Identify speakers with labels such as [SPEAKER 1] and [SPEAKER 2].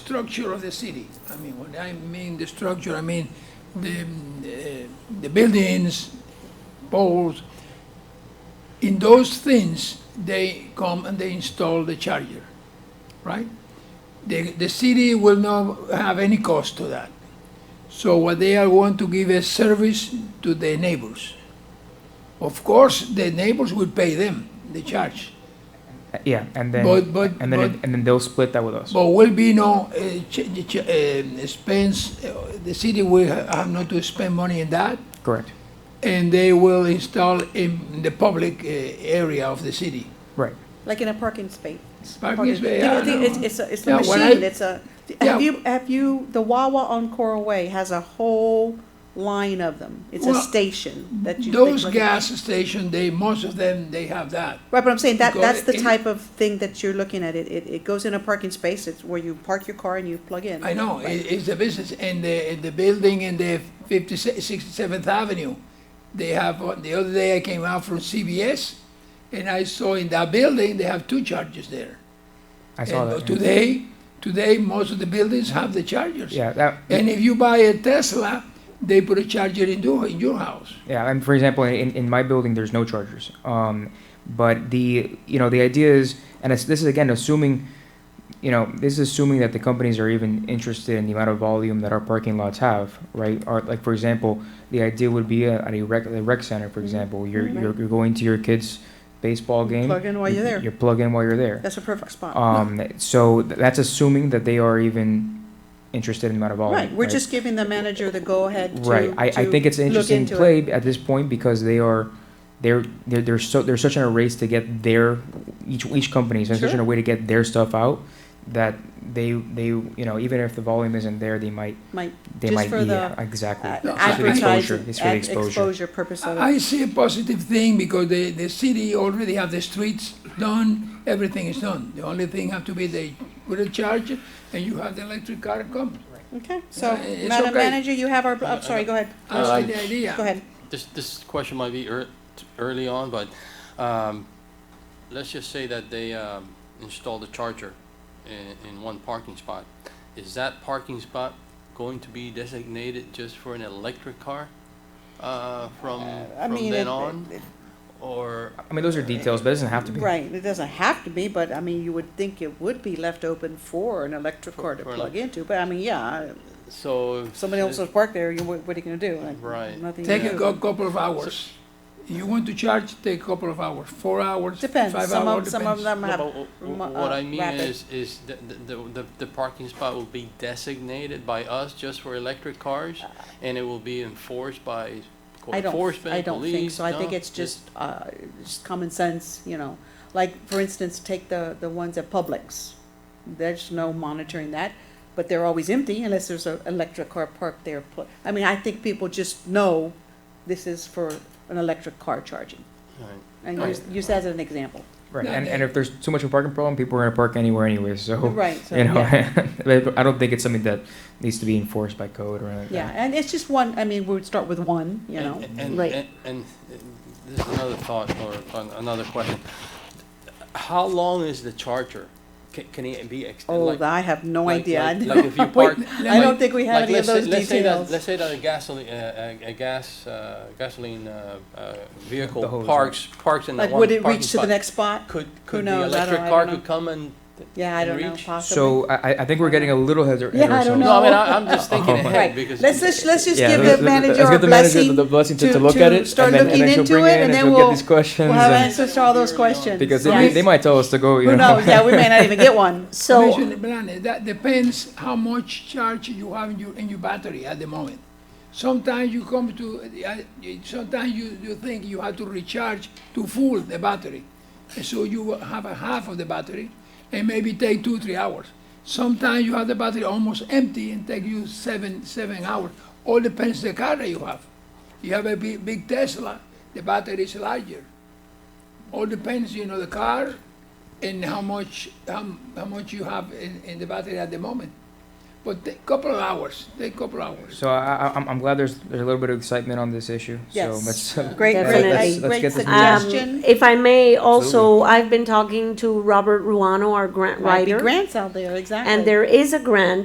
[SPEAKER 1] structure of the city. I mean, when I mean the structure, I mean the, the- the buildings, poles. In those things, they come and they install the charger, right? The, the city will not have any cost to that. So what they are want to give a service to the neighbors. Of course, the neighbors will pay them the charge,
[SPEAKER 2] Uh, Yeah, and then
[SPEAKER 1] But- but-
[SPEAKER 2] and then
[SPEAKER 1] but-
[SPEAKER 2] it- and then they'll split that with us.
[SPEAKER 1] but will be no uh, ch- ch- um, expense. uh, The city will ha- have not to spend money in that,
[SPEAKER 2] Correct.
[SPEAKER 1] and they will install in the public uh, area of the city.
[SPEAKER 2] Right.
[SPEAKER 3] Like in a parking space.
[SPEAKER 1] Parking
[SPEAKER 3] You
[SPEAKER 1] space,
[SPEAKER 3] know,
[SPEAKER 1] yeah, I
[SPEAKER 3] the- It's,
[SPEAKER 1] know.
[SPEAKER 3] it's a, it's a
[SPEAKER 1] Yeah, when I-
[SPEAKER 3] machine, it's a,
[SPEAKER 1] Yeah.
[SPEAKER 3] have you, have you, the Wawa on Coral Way has a whole line of them. It's a
[SPEAKER 1] Well,
[SPEAKER 3] station that you. they
[SPEAKER 1] Those
[SPEAKER 3] look at.
[SPEAKER 1] gas stations, they most of them they have that.
[SPEAKER 3] Right, but I'm saying that,
[SPEAKER 1] Go
[SPEAKER 3] that's the
[SPEAKER 1] in-
[SPEAKER 3] type of thing that you're looking at. It, it, it goes in a parking space, it's where you park your car and you plug in.
[SPEAKER 1] I know,
[SPEAKER 3] Right.
[SPEAKER 1] it, it's a business, and the, and the building in the 57th Avenue, they have, uh, the other day I came out from CBS, and I saw in that building, they have two chargers there.
[SPEAKER 2] I saw
[SPEAKER 1] And
[SPEAKER 2] that. yeah.
[SPEAKER 1] Today, today, most of the buildings have the chargers.
[SPEAKER 2] Yeah, that
[SPEAKER 1] And if you buy a Tesla, they put a charger in your, in your house.
[SPEAKER 2] yeah. And for example, in, in my building, there's no chargers. Um, but the you know the idea is, and it's, this is again assuming, you know, this is assuming that the companies are even interested in the amount of volume that our parking lots have, right? Or like for example, the idea would be uh, at a rec, a rec center, for example, you're,
[SPEAKER 3] Right.
[SPEAKER 2] you're you're going to your kids' baseball game.
[SPEAKER 3] Mm-hmm. Plug in while
[SPEAKER 2] you-
[SPEAKER 3] you're there.
[SPEAKER 2] You plug in while you're there.
[SPEAKER 3] That's a perfect spot.
[SPEAKER 2] Um, so th- that's assuming that they are even interested in amount of volume.
[SPEAKER 3] Right, we're just giving the manager the go-ahead to.
[SPEAKER 2] right. I, I
[SPEAKER 3] to
[SPEAKER 2] think it's an
[SPEAKER 3] look
[SPEAKER 2] interesting
[SPEAKER 3] into it.
[SPEAKER 2] play at this point because they are they're they're, they're so they're such in a race to get their each each company is in such in
[SPEAKER 3] Sure.
[SPEAKER 2] a way to get their stuff out that they they you know even if the volume isn't there they might
[SPEAKER 3] Might
[SPEAKER 2] they
[SPEAKER 3] Just
[SPEAKER 2] might
[SPEAKER 3] for
[SPEAKER 2] be
[SPEAKER 3] the,
[SPEAKER 2] exactly
[SPEAKER 3] Uh,
[SPEAKER 1] No,
[SPEAKER 2] it's for the exposure
[SPEAKER 3] advertising,
[SPEAKER 2] it's for the
[SPEAKER 3] ad-
[SPEAKER 2] exposure
[SPEAKER 3] exposure purpose of it.
[SPEAKER 1] I see a positive thing because the, the city already have the streets done, everything is done. The only thing have to be they put a charger and you have the electric car come.
[SPEAKER 3] Okay, so,
[SPEAKER 1] Yeah, it's
[SPEAKER 3] Madam
[SPEAKER 1] okay.
[SPEAKER 3] Manager, you have our, bl- I'm sorry, go ahead,
[SPEAKER 4] Uh,
[SPEAKER 1] I like the idea.
[SPEAKER 3] go ahead.
[SPEAKER 4] This, this question might be ear- t- early on, but um, let's just say that they um, installed a charger in, in one parking spot. Is that parking spot going to be designated just for an electric car uh, from,
[SPEAKER 3] I
[SPEAKER 4] from
[SPEAKER 3] mean,
[SPEAKER 4] then
[SPEAKER 3] it-
[SPEAKER 4] on?
[SPEAKER 3] it-
[SPEAKER 4] Or,
[SPEAKER 2] I mean those are details but it doesn't have to be
[SPEAKER 3] Right, it doesn't have to be, but I mean, you would think it would be left open for an electric
[SPEAKER 4] For-
[SPEAKER 3] car to
[SPEAKER 4] for an
[SPEAKER 3] plug into, but I mean, yeah,
[SPEAKER 4] so.
[SPEAKER 3] if somebody else was parked there, you, what what are you gonna do? Like,
[SPEAKER 4] Right.
[SPEAKER 3] Nothing. you
[SPEAKER 1] Take
[SPEAKER 3] do.
[SPEAKER 1] a cou- couple of hours. You want to charge, take a couple of hours, four hours, five
[SPEAKER 3] Depends, some
[SPEAKER 1] hours,
[SPEAKER 3] of, some of
[SPEAKER 1] depends.
[SPEAKER 3] them
[SPEAKER 4] No,
[SPEAKER 3] have.
[SPEAKER 4] but wh- wh-
[SPEAKER 3] remo-
[SPEAKER 4] What
[SPEAKER 3] uh,
[SPEAKER 4] I mean
[SPEAKER 3] rapid.
[SPEAKER 4] is, is the, the, the, the parking spot will be designated by us just for electric cars? And it will be enforced by code
[SPEAKER 3] Uh, I don't, I
[SPEAKER 4] enforcement,
[SPEAKER 3] don't think
[SPEAKER 4] police?
[SPEAKER 3] so. I think
[SPEAKER 4] no?
[SPEAKER 3] it's just, uh, just common sense, you know. Like, for instance, take the, the ones at Publix. There's no monitoring that, but they're always empty unless there's an electric car parked there. Pl- I mean, I think people just know this is for an electric car charging.
[SPEAKER 4] Right.
[SPEAKER 3] And use, use that as an example.
[SPEAKER 2] right
[SPEAKER 1] No,
[SPEAKER 2] and,
[SPEAKER 1] they-
[SPEAKER 2] and if there's too much of a parking problem people are gonna park anywhere anyway so
[SPEAKER 3] Right, so,
[SPEAKER 2] you know
[SPEAKER 3] yeah.
[SPEAKER 2] but I don't think it's something that needs to be enforced by code or anything like that.
[SPEAKER 3] Yeah, and it's just one, I mean, we would start with one, you know.
[SPEAKER 4] And- and-
[SPEAKER 3] Right.
[SPEAKER 4] And, and this is another thought or an- another question. How long is the charger? Can, can it be extended?
[SPEAKER 3] Oh, I have no
[SPEAKER 4] like-
[SPEAKER 3] idea.
[SPEAKER 4] like-
[SPEAKER 3] I
[SPEAKER 4] like if you
[SPEAKER 3] don't-
[SPEAKER 4] park-
[SPEAKER 3] I don't think we have any of
[SPEAKER 4] let's
[SPEAKER 3] those
[SPEAKER 4] say, let's say that
[SPEAKER 3] details.
[SPEAKER 4] let's say that a gasoline uh, a, a gas uh, gasoline uh, uh, vehicle
[SPEAKER 2] The hose,
[SPEAKER 4] parks parks in
[SPEAKER 3] Like,
[SPEAKER 4] the one
[SPEAKER 3] would it
[SPEAKER 4] parking
[SPEAKER 3] reach to
[SPEAKER 4] spot.
[SPEAKER 3] the next spot?
[SPEAKER 4] Could could
[SPEAKER 3] knows? I
[SPEAKER 4] the electric
[SPEAKER 3] don't- I
[SPEAKER 4] car
[SPEAKER 3] don't
[SPEAKER 4] could come and
[SPEAKER 3] Yeah, I don't know,
[SPEAKER 4] reach?
[SPEAKER 3] possibly.
[SPEAKER 2] So I, I- I think we're getting a little ahead, ahead
[SPEAKER 3] Yeah, I don't
[SPEAKER 2] ourselves.
[SPEAKER 3] know.
[SPEAKER 4] I mean I, I'm just thinking
[SPEAKER 2] Oh.
[SPEAKER 4] ahead
[SPEAKER 3] Right,
[SPEAKER 4] because
[SPEAKER 3] let's just, let's just give
[SPEAKER 2] let's-
[SPEAKER 3] the manager
[SPEAKER 2] let's
[SPEAKER 3] our
[SPEAKER 2] give the manager
[SPEAKER 3] blessing.
[SPEAKER 2] the blessing to,
[SPEAKER 3] to-
[SPEAKER 2] to look
[SPEAKER 3] to
[SPEAKER 2] at it,
[SPEAKER 3] start
[SPEAKER 2] and then,
[SPEAKER 3] looking
[SPEAKER 2] and then she'll
[SPEAKER 3] into
[SPEAKER 2] bring
[SPEAKER 3] it,
[SPEAKER 2] it,
[SPEAKER 3] and
[SPEAKER 2] and
[SPEAKER 3] then
[SPEAKER 2] she'll
[SPEAKER 3] we'll-
[SPEAKER 2] get these questions.
[SPEAKER 3] We'll have
[SPEAKER 2] and-
[SPEAKER 3] answers to all those questions.
[SPEAKER 2] because they,
[SPEAKER 3] Yeah.
[SPEAKER 2] may- they might tell us to go. You
[SPEAKER 3] Who
[SPEAKER 2] know.
[SPEAKER 3] knows, yeah, we may not even get one.
[SPEAKER 1] Commissioner Blanes, that depends how much charge you have in your, in your battery at the moment. Sometimes you come to, uh, sometimes you, you think you have to recharge to full the battery. And so you have a half of the battery and maybe take two, three hours. Sometimes you have the battery almost empty and take you seven, seven hours. All depends the car that you have. You have a big, big Tesla, the battery is larger. All depends, you know, the car and how much, how, how much you have in, in the battery at the moment. But take couple of hours, take couple hours.
[SPEAKER 2] So I, I, I'm, I'm glad there's there's a little bit of excitement on this issue. So
[SPEAKER 3] Yes,
[SPEAKER 2] let's, uh,
[SPEAKER 3] great,
[SPEAKER 2] let's-
[SPEAKER 3] great,
[SPEAKER 2] let's- let's
[SPEAKER 3] I- great
[SPEAKER 2] get this moving.
[SPEAKER 3] suggestion.
[SPEAKER 5] Um, if I may, also, I've been talking to Robert Ruano, our grant
[SPEAKER 3] Might be
[SPEAKER 5] writer,
[SPEAKER 3] grants out there, exactly.
[SPEAKER 5] and there is a grant